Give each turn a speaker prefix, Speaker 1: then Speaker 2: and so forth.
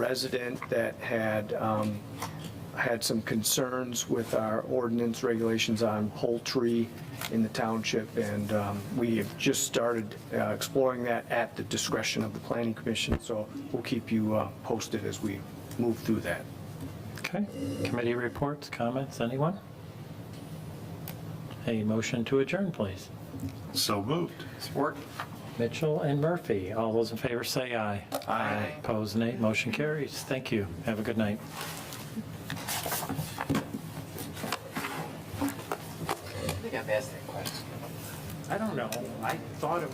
Speaker 1: resident that had, um, had some concerns with our ordinance regulations on poultry in the township, and um, we have just started uh, exploring that at the discretion of the planning commission, so we'll keep you uh, posted as we move through that.
Speaker 2: Okay, committee reports, comments, anyone? A motion to adjourn, please.
Speaker 3: So moved.
Speaker 4: Support.
Speaker 2: Mitchell and Murphy, all those in favor say aye. Aye. Opposed, nay. Motion carries. Thank you. Have a good night.
Speaker 4: I think I've asked that question.
Speaker 2: I don't know. I thought it